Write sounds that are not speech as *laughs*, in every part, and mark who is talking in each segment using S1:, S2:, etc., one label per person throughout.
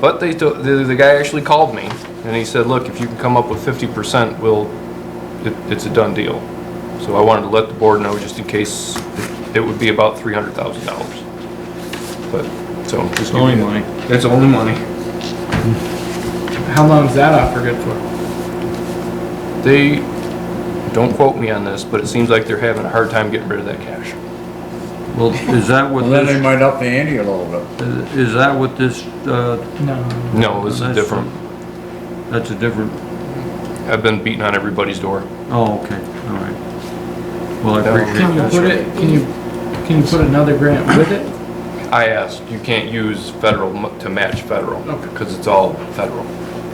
S1: But they, to- the, the guy actually called me and he said, look, if you can come up with fifty percent, we'll, it, it's a done deal. So I wanted to let the board know just in case it- it would be about three hundred thousand dollars. But, so. just give you- It's only money.
S2: How long is that offer good for?
S1: They, don't quote me on this, but it seems like they're having a hard time getting rid of that cash.
S3: Well, is that what
S4: Well, then they
S3: this,
S4: might up the ante a little bit.
S3: Uh, is that what this, uh,
S2: No.
S1: No, this is
S3: That's-
S1: different.
S3: that's a different,
S1: I've been beating on everybody's door.
S3: oh, okay, all right. Well, I
S1: No.
S3: appreciate
S2: Can you
S3: that.
S2: put it, can you, can you put another grant with it?
S1: I asked, you can't use federal mo- to match federal,
S2: Okay.
S1: because it's all federal.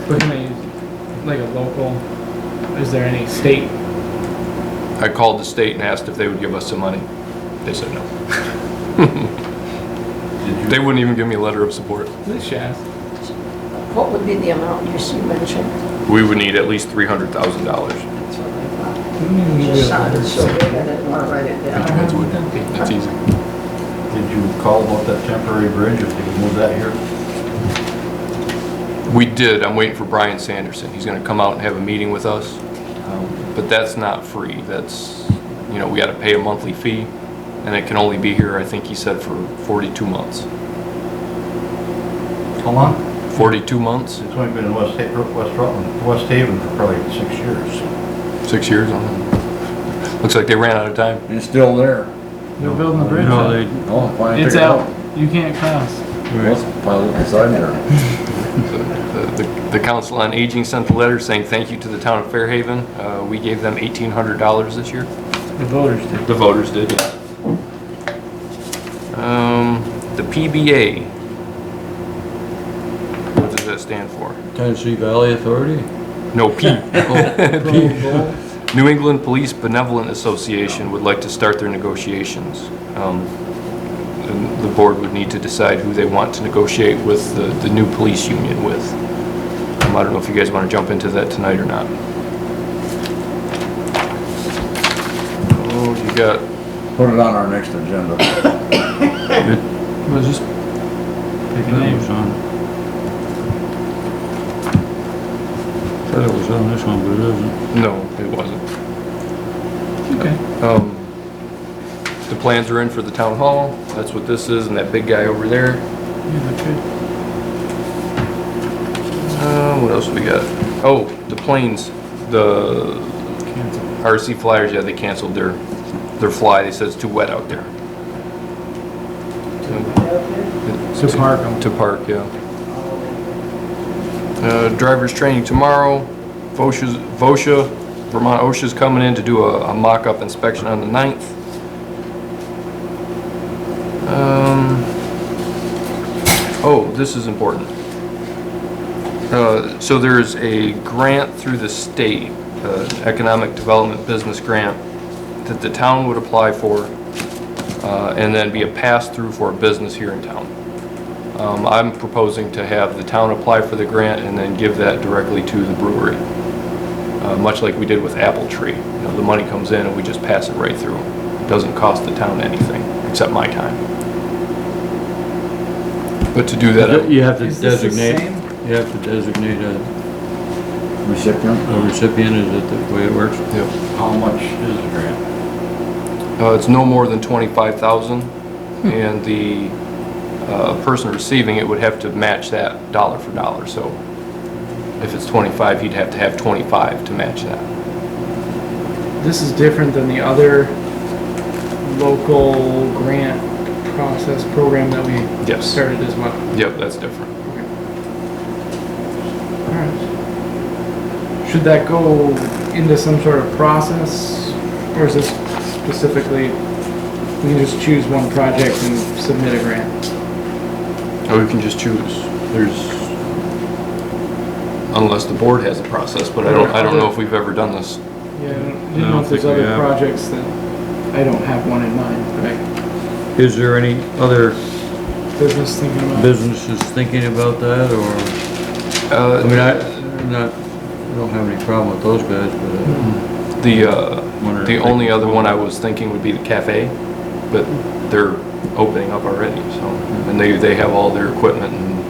S2: But can I use, like a local, is there any state?
S1: I called the state and asked if they would give us some money. They said *laughs* no.
S3: Did
S1: They
S3: you-
S1: wouldn't even give me a letter of support.
S2: This Shaz.
S5: What would be the amount you see mentioned?
S1: We would need at least three hundred thousand dollars.
S5: That's what I
S2: We don't
S5: thought.
S2: even
S5: It
S2: need a
S5: just sounded
S2: letter.
S5: so big, I didn't want to write it down.
S1: That's what- That's easy.
S3: Did you call about that temporary bridge, if they move that here?
S1: We did, I'm waiting for Brian Sanderson. He's gonna come out and have a meeting with us. Um, But that's not free, that's, you know, we gotta pay a monthly fee, and it can only be here, I think he said, for forty-two months.
S4: How long?
S1: Forty-two months?
S4: It's only been in West, Ha- West Rutland, West Haven for probably six years.
S1: Six years on it. Looks like they ran out of time.
S4: It's still there.
S2: They're building the bridge.
S3: No,
S2: up.
S3: they,
S4: Oh, finally figured
S2: It's
S4: it
S2: out. You can't cross.
S4: Well, it's probably beside there.
S1: The- The the Council on Aging sent a letter saying thank you to the town of Fairhaven. Uh, We gave them $1,800 this year.
S2: The voters did.
S1: The voters did, yeah. Um, The PBA. What does that stand for?
S3: Tennessee Valley Authority?
S1: No, *laughs* P.
S3: Oh,
S1: New England Police Benevolent Association would like to start their negotiations. Um, and The board would need to decide who they want to negotiate with the the new police union with. Um, I don't know if you guys want to jump into that tonight or not. Oh, you got,
S4: Put it on our next agenda.
S3: Was just picking names on. Thought it was on this one, but it isn't.
S1: no, it wasn't.
S2: Okay.
S1: Um, The plans are in for the town hall, that's what this is, and that big guy over there.
S2: Yeah, they could.
S1: Uh, what else we got? Oh, the planes, the RC Flyers, yeah, they canceled their, their fly. They said it's too wet out there.
S2: To park 'em.
S1: To park, yeah. Uh, drivers training tomorrow. VOSHA's, VOSHA, Vermont OSHA's coming in to do a, a mock-up inspection on the 9th. Um, oh, this is important. Uh, So there's a grant through the state, uh, Economic Development Business Grant, that the town would apply for, uh, and then be a pass-through for a business here in town. Um, I'm proposing to have the town apply for the grant and then give that directly to the brewery, uh, much like we did with Apple Tree. You know, the money comes in and we just pass it right through. It Doesn't cost the town anything, except my time. But to do that. I-
S3: You have to
S2: Is this the
S3: designate,
S2: same?
S3: you have to designate a
S4: Recipient?
S3: a recipient, is it the way it works?
S1: Yep.
S4: How much is the grant?
S1: Uh, It's no more than 25,000, and the uh, person receiving it would have to match that dollar for dollar. So if it's 25, he'd have to have 25 to match that.
S2: This is different than the other local grant process program that we
S1: Yes.
S2: started as well.
S1: Yep, that's different.
S2: Alright. Should that go into some sort of process, or is this specifically, we can just choose one project and submit a grant?
S1: Or we can just choose. There's, unless the board has a process, but I don't, I don't know if we've ever done this.
S2: Yeah, I don't-
S3: I
S2: didn't know
S3: don't
S2: if there's
S3: think we
S2: other
S3: have.
S2: projects that, I don't have one in mind, but I
S3: Is there any other
S2: business thinking about.
S3: businesses thinking about that, or, Uh, I mean, I, not, I don't have any problem with those guys, but
S1: The, uh,
S3: I wonder. if
S1: the
S3: they-
S1: only other one I was thinking would be the cafe, but they're opening up already, so. And they, they have all their equipment and